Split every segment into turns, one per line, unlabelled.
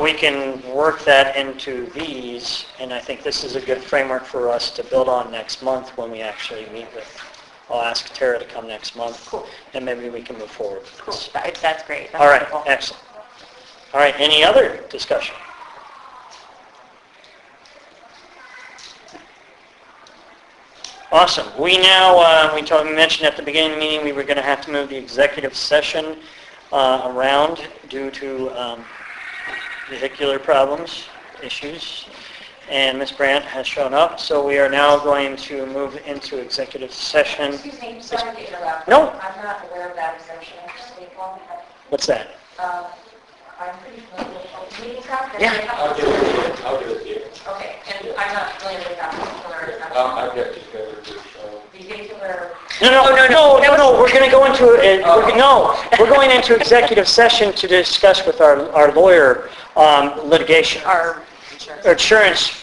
we can work that into these, and I think this is a good framework for us to build on next month when we actually meet with, I'll ask Tara to come next month.
Cool.
And maybe we can move forward with
Cool.
this.
That- That's great. That's
All right,
wonderful.
excellent. All right, any other discussion? Awesome. We now, uh, we told, we mentioned at the beginning of the meeting, we were going to have to move the executive session uh, around due to um, vehicular problems, issues, and Ms. Brandt has shown up, so we are now going to move into executive session.
Excuse me, sorry to interrupt.
No.
I'm not aware of that exemption, I just need one.
What's that?
Um, I'm pretty familiar with open meetings act.
Yeah.
I'll do it here, I'll do it here.
Okay, and I'm not familiar with that Um, particular exemption.
I'll, I've got you covered, so.
Vehicular,
No, no, no, no, no, no, we're going to go into, uh, we're- no, we're going into executive session to discuss with our our lawyer um, litigation,
Our insurance.
insurance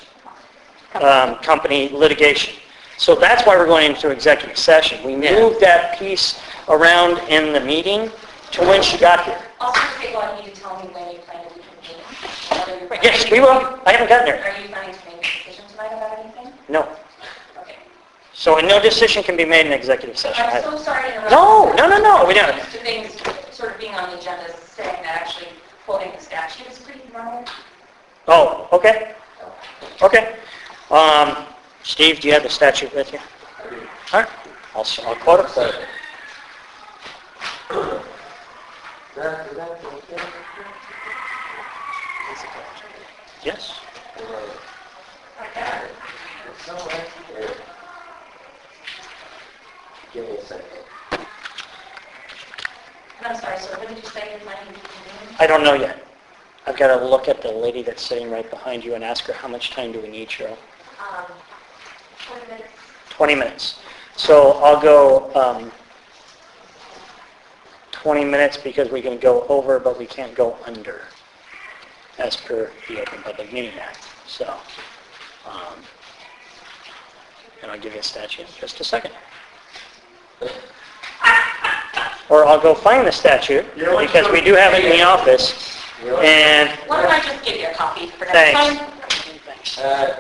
um, company litigation. So that's why we're going into executive session. We
Yeah.
moved that piece around in the meeting to when she got here.
also, people, I need to tell me when you plan to reconvene. whether you're planning-
Yes, we will, I haven't gotten there,
Are you planning to make a decision tonight about anything?
no.
Okay.
So and no decision can be made in executive session.
I'm
I-
so sorry to interrupt.
Uh, No, no, no, no, we don't.
Two things, sort of being on the agenda, is saying that actually quoting the statute is pretty normal.
Oh, okay, okay. Um, Steve, do you have the statute with you? All right, I'll, s- I'll quote it for you. Yes.
Give me a second.
And I'm sorry, so what did you say you're planning to reconvene?
I don't know yet. I've got to look at the lady that's sitting right behind you and ask her, how much time do we need, Cheryl?
Um, twenty minutes.
20 minutes. So I'll go um, 20 minutes because we can go over, but we can't go under as per the Open Public Meeting Act. So, um, and I'll give you a statute in just a second. Or I'll go find the statute
You know what,
because we
so-
do have it in the office.
You know what?
And
Why don't I just give you a copy for next time?
thanks.
Uh,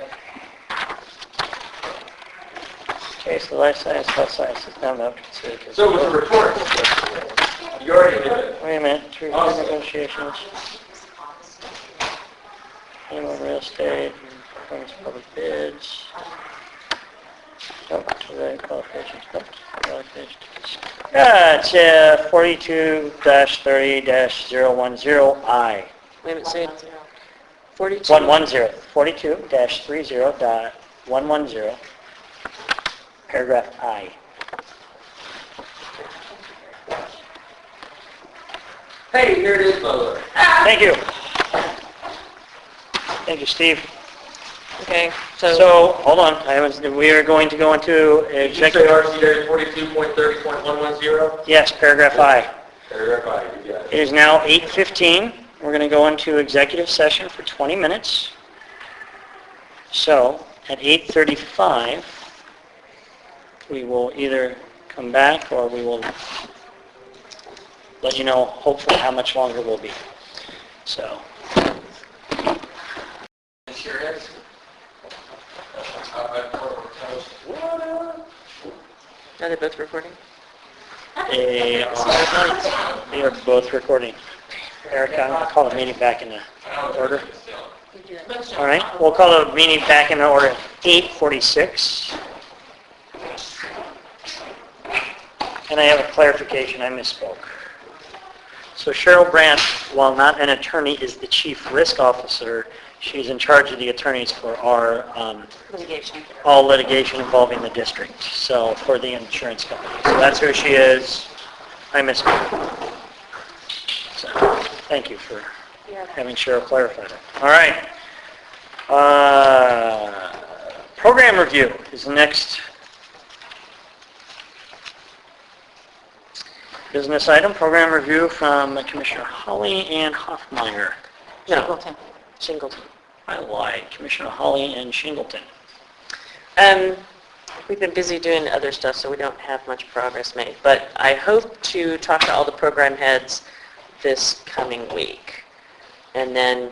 Okay, so life science, health sciences, now no.
so with the report, you already did it.
Wait a minute, true
Awesome.
negotiations, annual real estate, performance of public bids. Nope, to the qualifications, nope, qualifications. Yeah, it's uh, 42-30-010I.
Wait a minute, say it. 42.
110, 42-30.110, paragraph I.
Hey, here it is, my lord.
Thank you. Thank you, Steve.
Okay, so,
So, hold on, I was, we are going to go into
Did you say
executive,
RCA forty-two point thirty point one one zero?
yes, paragraph I.
Paragraph I, you got
It
it.
is now 8:15. We're going to go into executive session for 20 minutes. So at 8:35, we will either come back or we will let you know hopefully how much longer we'll be. So,
Insurance? Uh, What?
are they both recording?
they are they are both recording. Erica, I'll call the meeting back in a order. All right, we'll call the meeting back in order, 8:46. And I have a clarification, I misspoke. So Cheryl Brandt, while not an attorney, is the chief risk officer. She's in charge of the attorneys for our, um,
Litigation.
all litigation involving the district, so for the insurance company. So that's who she is. I misspoke. So, thank you for having Cheryl clarify that. All right. Uh, Program review is the next business item. Program review from Commissioner Holly and Hoffmeyer. No,
Singleton. Singleton.
I lied. Commissioner Holly and Shingleton.
Um, we've been busy doing other stuff, so we don't have much progress made, but I hope to talk to all the program heads this coming week. And then